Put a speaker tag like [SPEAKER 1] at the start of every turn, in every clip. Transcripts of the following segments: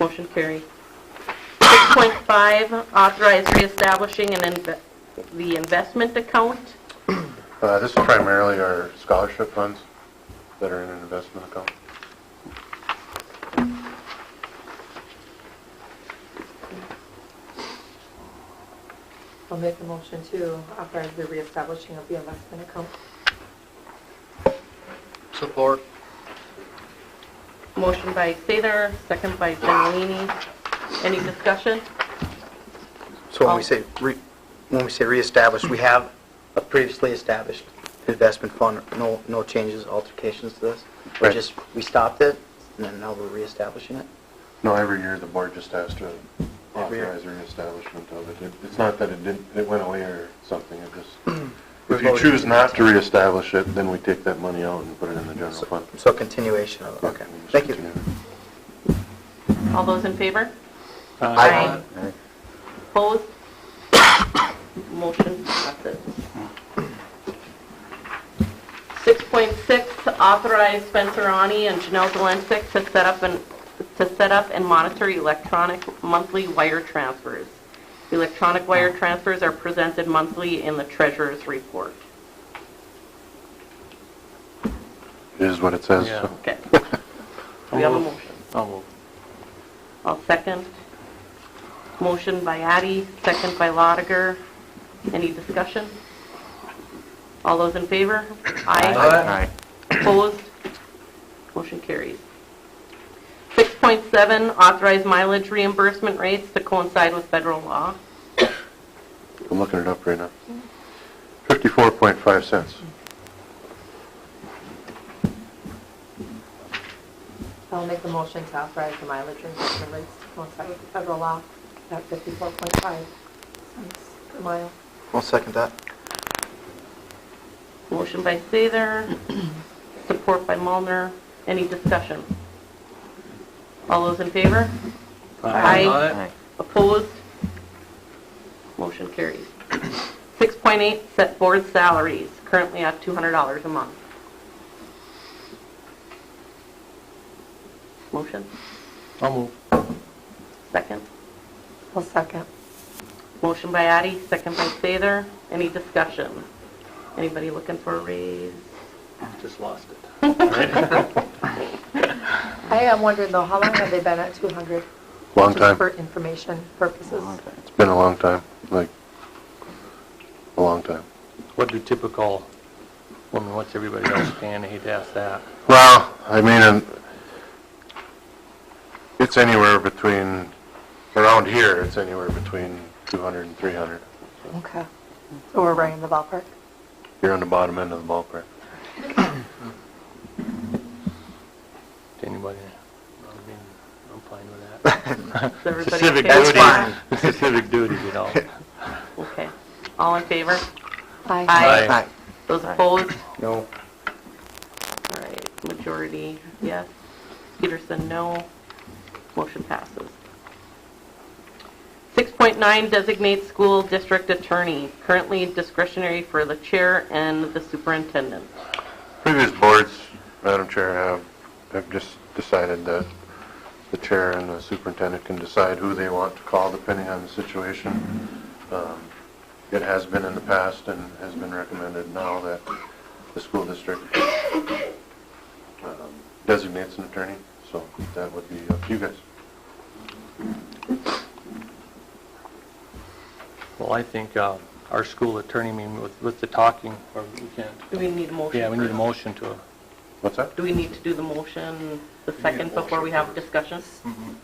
[SPEAKER 1] Motion carried. 6.5, authorize reestablishing an inve- the investment account.
[SPEAKER 2] Uh, This is primarily our scholarship funds that are in an investment account.
[SPEAKER 3] I'll make a motion to authorize the reestablishing of the investment account.
[SPEAKER 4] Support.
[SPEAKER 1] Motion by Sather, second by Genowini. Any discussion?
[SPEAKER 4] So when
[SPEAKER 1] Oh.
[SPEAKER 4] we say, re- when we say reestablish, we have a previously established investment fund, no, no changes, alterations to this? We
[SPEAKER 2] Right.
[SPEAKER 4] just, we stopped it, and then now we're reestablishing it?
[SPEAKER 2] No, every year the board just has to
[SPEAKER 4] Every year.
[SPEAKER 2] authorize a reestablishment of it. It- It's not that it didn't, it went away or something, it just,
[SPEAKER 4] We
[SPEAKER 2] if you
[SPEAKER 4] voted.
[SPEAKER 2] choose not to reestablish it, then we take that money out and put it in the general
[SPEAKER 4] So-
[SPEAKER 2] fund.
[SPEAKER 4] So continuation of, it. okay,
[SPEAKER 2] We just
[SPEAKER 4] thank you.
[SPEAKER 2] continue.
[SPEAKER 1] All those in favor?
[SPEAKER 5] Uh,
[SPEAKER 4] Aye.
[SPEAKER 1] Opposed? Motion passes. 6.6, authorize Spencer Ani and Janelle Delancik to set up and, to set up and monitor electronic monthly wire transfers. Electronic wire transfers are presented monthly in the treasurer's report.
[SPEAKER 2] It is what it says.
[SPEAKER 5] Yeah.
[SPEAKER 2] so.
[SPEAKER 1] Okay. We have a motion.
[SPEAKER 5] I'll move.
[SPEAKER 1] I'll second. Motion by Addy, second by Lotiger. Any discussion? All those in favor?
[SPEAKER 4] Aye.
[SPEAKER 1] Opposed? Motion carries. 6.7, authorize mileage reimbursement rates to coincide with federal law.
[SPEAKER 2] I'm looking it up right now. 54.5 cents.
[SPEAKER 3] I'll make a motion to authorize the mileage reimbursement rates to coincide with the federal law at 54.5 cents per mile.
[SPEAKER 4] I'll second that.
[SPEAKER 1] Motion by Sather, support by Mulner. Any discussion? All those in favor? Aye. Opposed? Motion carries. 6.8, set board salaries, currently at $200 a month. Motion,
[SPEAKER 5] I'll move.
[SPEAKER 1] second.
[SPEAKER 3] I'll second.
[SPEAKER 1] Motion by Addy, second by Sather. Any discussion? Anybody looking for a raise?
[SPEAKER 5] Just lost it.
[SPEAKER 3] I am wondering though, how long have they been at 200?
[SPEAKER 2] Long
[SPEAKER 3] Just
[SPEAKER 2] time.
[SPEAKER 3] for information purposes.
[SPEAKER 2] It's been a long time, like, a long time.
[SPEAKER 5] What do typical, I mean, what's everybody else paying? I hate to ask that.
[SPEAKER 2] Well, I mean, um, it's anywhere between, around here, it's anywhere between 200 and 300.
[SPEAKER 3] Okay. So we're right in the ballpark.
[SPEAKER 2] You're on the bottom end of the ballpark.
[SPEAKER 5] To anybody, I mean, I'm fine with that.
[SPEAKER 1] Is everybody okay
[SPEAKER 5] Specific
[SPEAKER 1] with
[SPEAKER 5] duties.
[SPEAKER 1] that?
[SPEAKER 4] That's
[SPEAKER 5] Specific duties, you know.
[SPEAKER 1] Okay. All in favor?
[SPEAKER 3] Aye.
[SPEAKER 1] Aye.
[SPEAKER 4] Aye.
[SPEAKER 1] Those opposed?
[SPEAKER 4] No.
[SPEAKER 1] All right, majority, yes. Peterson, no. Motion passes. 6.9, designate school district attorney, currently discretionary for the chair and the superintendent.
[SPEAKER 2] Previous boards, Madam Chair, have, have just decided that the chair and the superintendent can decide who they want to call depending on the situation. Um, It has been in the past and has been recommended now that the school district um, designates an attorney, so that would be up to you guys.
[SPEAKER 5] Well, I think uh, our school attorney, I mean, with, with the talking, or we can't,
[SPEAKER 1] Do we need a motion?
[SPEAKER 5] yeah, we need a
[SPEAKER 1] first?
[SPEAKER 5] motion to,
[SPEAKER 2] What's that?
[SPEAKER 1] Do we need to do the motion the second before we have discussions?
[SPEAKER 5] Mm-hmm.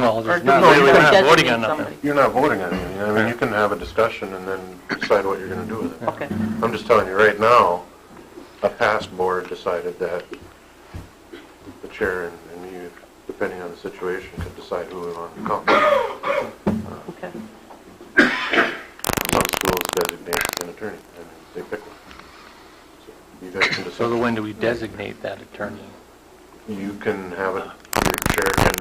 [SPEAKER 5] well,
[SPEAKER 1] Or
[SPEAKER 5] there's
[SPEAKER 1] do we
[SPEAKER 5] not
[SPEAKER 2] No,
[SPEAKER 1] have
[SPEAKER 5] really,
[SPEAKER 2] we're
[SPEAKER 1] to
[SPEAKER 5] we're not voting
[SPEAKER 1] designate
[SPEAKER 5] on nothing.
[SPEAKER 1] somebody?
[SPEAKER 2] You're not voting on anything. I mean, you can have a discussion and then decide what you're going to do with it.
[SPEAKER 1] Okay,
[SPEAKER 2] I'm just telling you, right now, a past board decided that the chair and and you, depending on the situation, could decide who we want to call.
[SPEAKER 1] okay.
[SPEAKER 2] Some schools designate an attorney, and they pick one. So You guys can
[SPEAKER 5] So
[SPEAKER 2] decide.
[SPEAKER 5] when do we designate that attorney?
[SPEAKER 2] You can have it, your chair can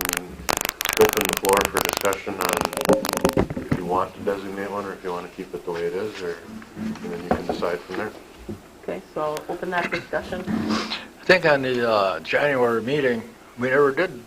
[SPEAKER 2] open the floor for discussion on if you want to designate one, or if you want to keep it the way it is, or, and then you can decide from there.
[SPEAKER 1] Okay, so I'll open that discussion.
[SPEAKER 6] I think on the uh, January meeting, we never did